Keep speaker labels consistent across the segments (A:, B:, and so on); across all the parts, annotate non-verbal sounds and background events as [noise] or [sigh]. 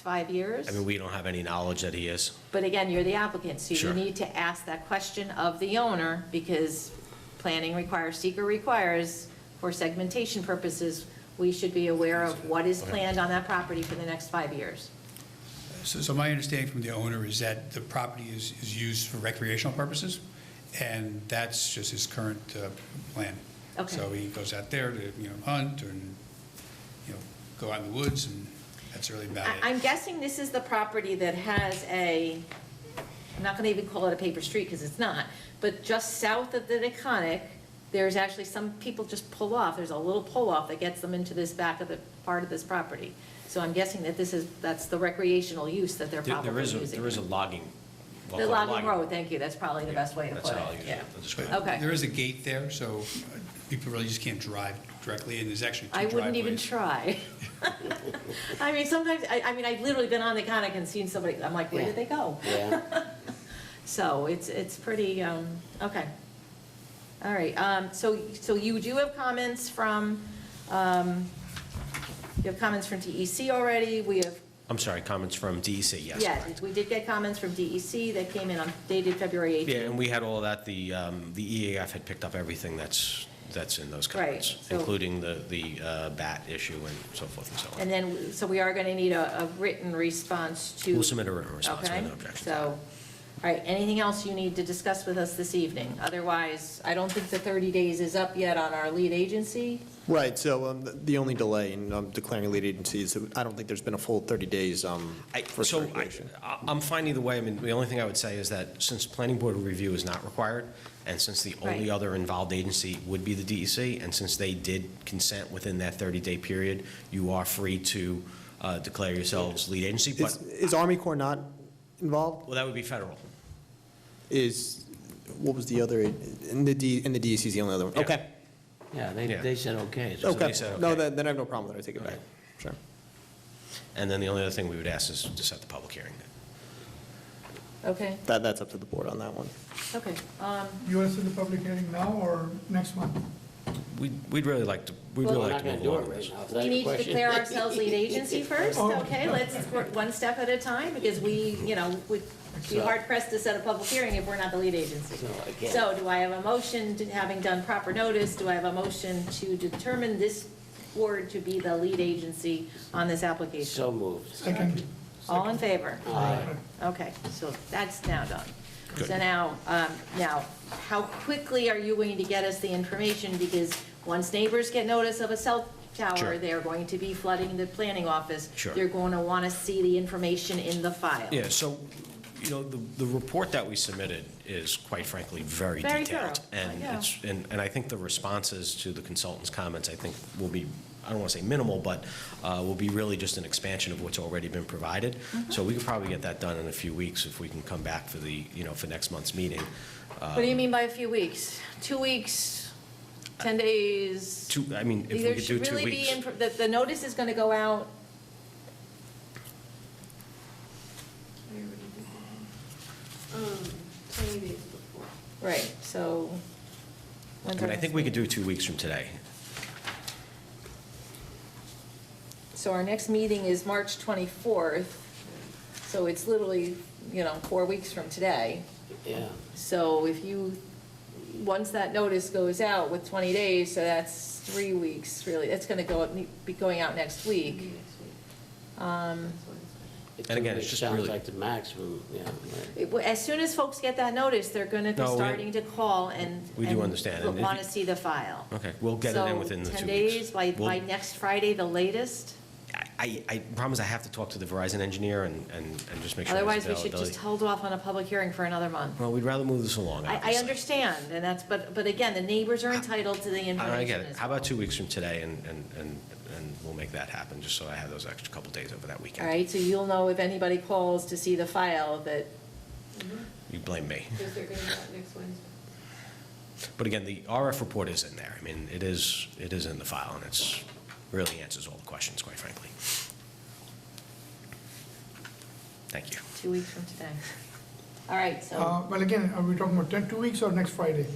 A: five years.
B: I mean, we don't have any knowledge that he is.
A: But again, you're the applicant, so you
B: Sure.
A: need to ask that question of the owner, because planning requires, seeker requires, for segmentation purposes, we should be aware of what is planned on that property for the next five years.
C: So, so my understanding from the owner is that the property is, is used for recreational purposes, and that's just his current uh, plan.
A: Okay.
C: So he goes out there to, you know, hunt and, you know, go out in the woods, and that's really about
A: I-
C: it.
A: I'm guessing this is the property that has a, I'm not going to even call it a paper street because it's not, but just south of the Deconic, there's actually some people just pull off, there's a little pull-off that gets them into this back of the, part of this property. So I'm guessing that this is, that's the recreational use that they're
B: There-
A: probably
B: There is, a-
A: using.
B: there is a logging. well,
A: The logging
B: logging-
A: road, thank you, that's probably the best way to
B: That's
A: put
B: how I'll
A: it,
B: use
A: yeah.
B: it. I'll describe it.
C: But
A: Okay.
C: There is a gate there, so uh, people really just can't drive directly, and there's actually two
A: I
C: driveways.
A: wouldn't even try.
B: [laughs]
A: I mean, sometimes, I, I mean, I've literally been on the Deconic and seen somebody, I'm like, where did they go?
D: Yeah,
A: [laughs] So it's, it's pretty, um, okay. All right, um, so, so you do have comments from, um, you have comments from DEC already, we have,
B: I'm sorry, comments from DEC, yes.
A: yeah,
B: correct.
A: we did get comments from DEC that came in on dated February
B: Yeah,
A: 18th.
B: and we had all that, the, um, the EAF had picked up everything that's, that's in those
A: Right,
B: comments,
A: so-
B: including the, the uh, bat issue and so forth and so on.
A: And then, so we are gonna need a, a written response to.
B: We'll submit a written response with
A: Okay,
B: no objection.
A: So, all right, anything else you need to discuss with us this evening? Otherwise, I don't think the 30 days is up yet on our lead agency.
D: right, so um, th- the only delay in um, declaring lead agency is, that I don't think there's been a full 30 days um,
B: I-
D: for
B: So I-
D: circulation.
B: I- I'm fine either way. I mean, the only thing I would say is that since planning board review is not required, and since the only
A: Right.
B: other involved agency would be the DEC, and since they did consent within that 30-day period, you are free to uh, declare yourselves lead agency, but,
D: Is is Army Corps not involved?
B: well, that would be federal.
D: Is, what was the other, and the D, and the DEC is the only other one?
B: Yeah.
D: Okay,
E: Yeah, they,
B: Yeah.
E: they said okay. so-
D: okay.
B: said
D: No,
B: okay.
D: then then I have no problem with it, I take it back.
B: Right.
D: Sure.
B: And then the only other thing we would ask is to set the public hearing.
A: Okay,
D: That, that's up to the board on that one.
A: okay. Um,
F: You want to set the public hearing now or next month?
B: We'd we'd really like to, we'd
E: Well,
B: really
E: We're
B: like to
E: not
B: move
E: gonna do
B: along
E: it
B: with
E: right
B: this.
E: now. Is that
A: We
E: your
A: need to
E: question? [laughs]
A: declare ourselves lead agency first,
F: Oh.
A: okay? Let's work one step at a time, because we, you know, would be hard pressed to set a public hearing if we're not the lead agency.
E: No, I can't.
A: So do I have a motion, to- having done proper notice, do I have a motion to determine this board to be the lead agency on this application?
E: So moved.
F: Second.
A: All in favor?
E: Aye.
A: Okay, so that's now done. So now, um, now, how quickly are you going to get us the information? Because once neighbors get notice of a cell tower,
B: Sure.
A: they're going to be flooding the planning office.
B: Sure.
A: They're going to want to see the information in the file.
B: Yeah, so, you know, the, the report that we submitted is quite frankly very
A: Very
B: detailed.
A: thorough,
B: And
A: yeah.
B: it's, and, and I think the responses to the consultant's comments, I think, will be, I don't want to say minimal, but uh, will be really just an expansion of what's already been provided.
A: Mm-hmm.
B: So we could probably get that done in a few weeks if we can come back for the, you know, for next month's meeting. Um,
A: What do you mean by a few weeks? Two weeks, 10 days?
B: Two, I mean, if we
A: There
B: could do
A: should
B: two
A: really be,
B: weeks.
A: inf- the, the notice is going to go out.
G: Um, Twenty days before.
A: Right, so.
B: I mean, I think we could do two weeks from today.
A: So our next meeting is March 24th, so it's literally, you know, four weeks from today.
E: Yeah,
A: So if you, once that notice goes out with 20 days, so that's three weeks, really, it's going to go, up- be going out next week. Um,
B: And again, it's
E: It
B: just
E: Sounds
B: really-
E: like the maximum, yeah. right.
A: it- As soon as folks get that notice, they're going to be
B: No, we-
A: starting to call and.
B: We do understand, and if
A: Want to
B: you-
A: see the file.
B: Okay, we'll get it in within the two
A: So
B: weeks.
A: 10 days, by,
B: We'll-
A: by next Friday, the latest?
B: I, I promise I have to talk to the Verizon engineer and, and and just make sure. there's
A: Otherwise, we should
B: availability.
A: just hold off on a public hearing for another month.
B: Well, we'd rather move this along,
A: I, I
B: obviously.
A: understand, and that's, but, but again, the neighbors are entitled to the
B: I
A: information.
B: I get it.
A: as
B: How
A: well.
B: about two weeks from today, and, and, and and we'll make that happen, just so I have those extra couple days over that
A: All
B: weekend?
A: right, so you'll know if anybody calls to see the file that,
B: You blame me.
G: Mm-hmm. Because they're gonna do that next Wednesday.
B: But again, the RF report is in there. I mean, it is, it is in the file, and it's, really answers all the questions, quite frankly. Thank you.
A: two weeks from today. All right, so,
F: Uh, Well, again, are we talking about 10, two weeks or next Friday?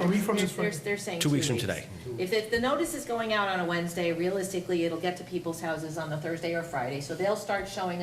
F: A week from this
A: They're-
F: Friday.
A: They're saying
B: Two
A: two
B: weeks
A: weeks.
B: from today.
A: If, if the notice is going out on a Wednesday, realistically, it'll get to people's houses on the Thursday or Friday, so they'll start showing up.